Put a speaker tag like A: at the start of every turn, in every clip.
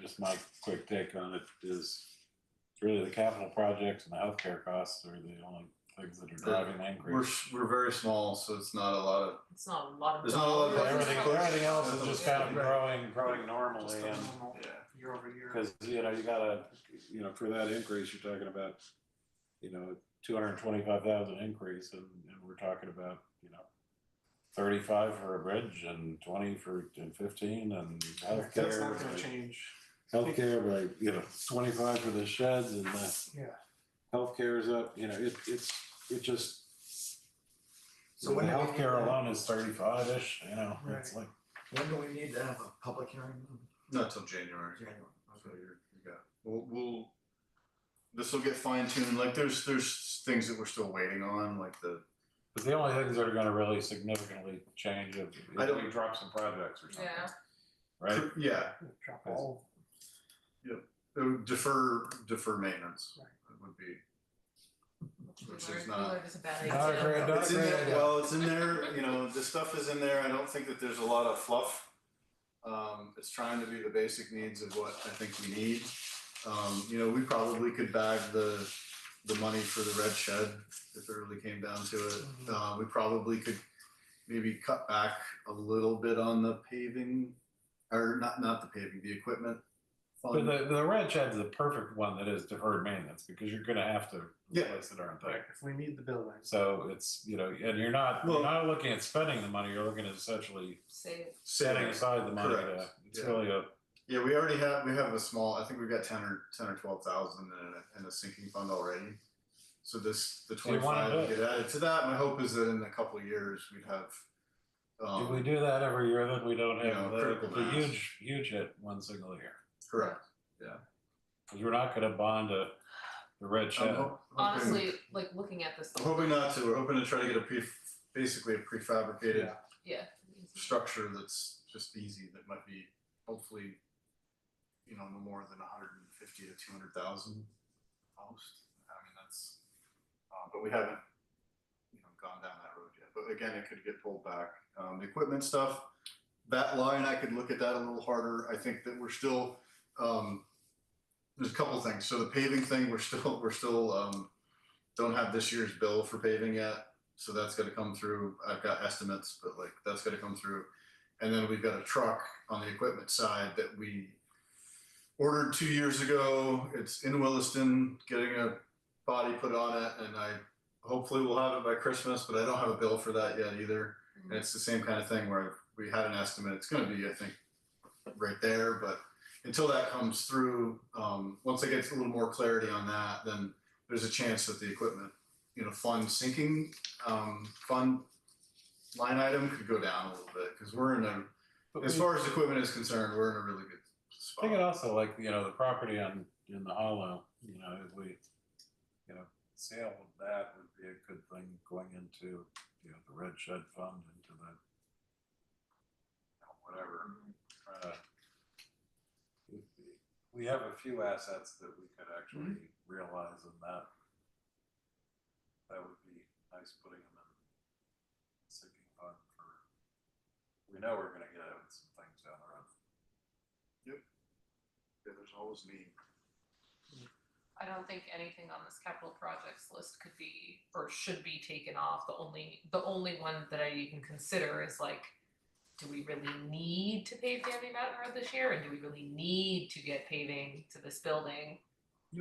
A: just my quick take on it is really the capital projects and the healthcare costs are the only things that are driving the
B: We're,
A: increase.
B: s- we're very small, so it's not a lot of,
C: It's not a lot of.
B: There's not a lot of
C: dollars.
A: Everything, everything else is just kind of
B: Right.
A: growing, growing normally
D: Just a
A: and,
D: normal
B: yeah.
D: year over year.
A: cause you know, you gotta, you know, for that increase, you're talking about, you know, two hundred and twenty-five thousand increase and, and we're talking about, you know, thirty-five for a bridge and twenty for, and fifteen and healthcare.
D: That's not gonna
A: and-
D: change,
A: healthcare by, you know, twenty-five for the sheds and the
D: yeah.
A: healthcare is up, you know, it, it's, it just.
E: So when
A: the
E: do we need
A: Healthcare
E: that?
A: alone is thirty-five-ish, you know, it's like,
E: When do we need to have a public hearing? Oh,
B: not till January.
E: January.
B: So you're, you got, we'll, we'll, this will get fine tuned, like there's, there's things that we're still waiting on, like the,
A: but the only things that are gonna really significantly change if,
B: I
A: if
B: don't-
A: we drop some projects or something,
C: Yeah.
A: right?
B: yeah,
D: Drop all,
B: it would defer, defer maintenance.
D: Right.
B: It would be. Which
C: Cooler-
B: is not.
C: cooler is a bad idea.
A: Not a great, not a
B: It's in
A: great
B: there,
A: idea.
B: well, it's in there, you know, the stuff is in there, I don't think that there's a lot of fluff. Um, it's trying to be the basic needs of what I think we need. Um, you know, we probably could bag the, the money for the red shed if it really came down to it. Uh, we probably could maybe cut back a little bit on the paving, or not, not the paving, the equipment.
A: But
B: fund.
A: the, the red shed's the perfect one that is deferred maintenance, because you're gonna have to
B: Yeah.
A: replace the darn thing.
D: right, if we need the buildings,
A: So it's, you know, and you're not,
B: Well-
A: you're not looking at spending the money, you're looking at essentially
C: Save,
A: setting aside the money to,
B: Correct.
A: it's
B: Yeah.
A: really a,
B: Yeah, we already have, we have a small, I think we've got ten or, ten or twelve thousand in a, in a sinking fund already. So this, the
A: So you wanna
B: twenty-five,
A: do
B: we
A: it.
B: get added to that, my hope is that in a couple of years, we'd have,
A: If we
B: um,
A: do that every year, then we don't
B: You know,
A: have the,
B: critical
A: the
B: mass.
A: huge, huge hit one single year.
B: correct.
A: Cause we're not gonna bond a, the red
B: I'm
A: shed.
B: ho- hoping-
C: honestly, like looking at this.
B: I'm hoping not to, we're hoping to try to get a pre, basically a prefabricated
D: Yeah.
C: Yeah.
B: structure that's just easy, that might be hopefully, you know, no more than hundred and fifty to two hundred thousand most, I mean, that's, uh, but we haven't, you know, gone down that road yet, but again, it could get pulled back. Um, the equipment stuff, that line, I could look at that a little harder, I think that we're still, um, there's a couple things, so the paving thing, we're still, we're still, um, don't have this year's bill for paving yet, so that's gonna come through, I've got estimates, but like, that's gonna come through. And then we've got a truck on the equipment side that we ordered two years ago. It's in Williston, getting a body put on it, and I hopefully will have it by Christmas, but I don't have a bill for that yet either. And it's the same kind of thing where we had an estimate. It's gonna be, I think, right there, but until that comes through, um, once I get a little more clarity on that, then there's a chance that the equipment, you know, fund sinking, um, fund line item could go down a little bit, because we're in a,
A: But
B: as
A: we-
B: far as equipment is concerned, we're in a really good
A: I
B: spot.
A: think it also like, you know, the property on, in the hollow, you know, if we, you know, sale of that would be a good thing going into, you know, the red shed fund into the, you know, whatever, trying to. We have a few assets that we could actually realize in that. That would be nice putting them in sinking fund for, we know we're gonna get out some things down the road.
B: Yeah, there's always need.
C: I don't think anything on this capital projects list could be or should be taken off. The only, the only one that I even consider is like, do we really need to pave Dandy Mountain Road this year? And do we really need to get paving to this building?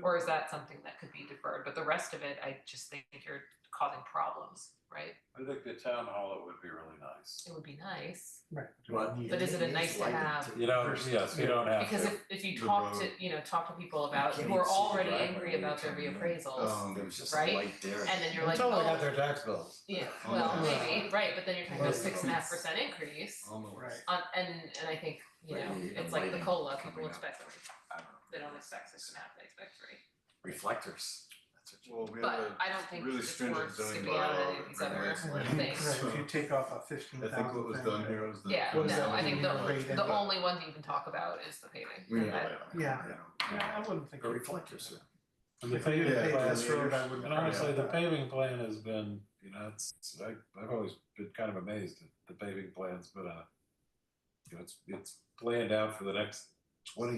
C: Or is that something that could be deferred? But the rest of it, I just think you're causing problems, right?
A: I think the town hall it would be really nice.
C: It would be nice.
D: right.
E: Well, you
C: But is it a
E: need
C: nice to
E: lighting
C: have?
A: You know, there's- yes, you don't
B: Uh,
A: have
C: Because
A: to.
C: if, if you
B: The
C: talk to,
B: road.
C: you know, talk to people about,
E: can't
C: who are
E: even see the
C: already
E: driveway
C: angry
E: when you
C: about their
E: turn in.
C: reappraisals,
B: Um,
E: There was just
C: Right?
E: light there.
C: and then you're like,
A: Until they got
C: oh,
A: their tax bills.
C: yeah,
B: Oh,
C: well,
D: yeah.
C: maybe, right, but then you're talking about
E: Well,
C: six and a half
E: it's-
C: percent increase.
B: On the
D: Right.
C: On, and, and I think, you
E: But
C: know,
E: you need
C: it's
E: a
C: like the
E: lighting
C: COLA,
E: coming
C: people
E: up.
C: expect three,
E: I don't know.
C: they don't expect six and a half, they expect three.
E: Reflectors. That's what you-
B: Well, we have
C: But
B: a
C: I don't think
B: really
C: it's
B: stringent
C: worth
B: zoning
C: skipping out
B: bylaw
C: any of these
B: that
C: other
B: regulates
D: Right,
B: lighting.
C: things.
D: Right, if you take off a fifteen
B: I
D: thousand.
B: think what was done here was the.
C: Yeah,
D: What does
C: no,
D: that
C: I think
D: mean?
C: the,
D: You're
C: only-
D: afraid
C: the
D: that-
C: only one you can talk about is the paving.
B: We need a
C: and that-
B: light on it,
D: Yeah.
B: you know.
D: Yeah, I wouldn't think.
E: The
D: it would-
E: reflectors. are-
A: And the
D: If
A: paving
D: you
B: Yeah,
D: paved
A: plan,
D: this road, I wouldn't.
A: and honestly, the paving plan has been, you know, it's, I, I've always been kind of amazed at the paving plans, but, uh, you know, it's, it's planned out for the next twenty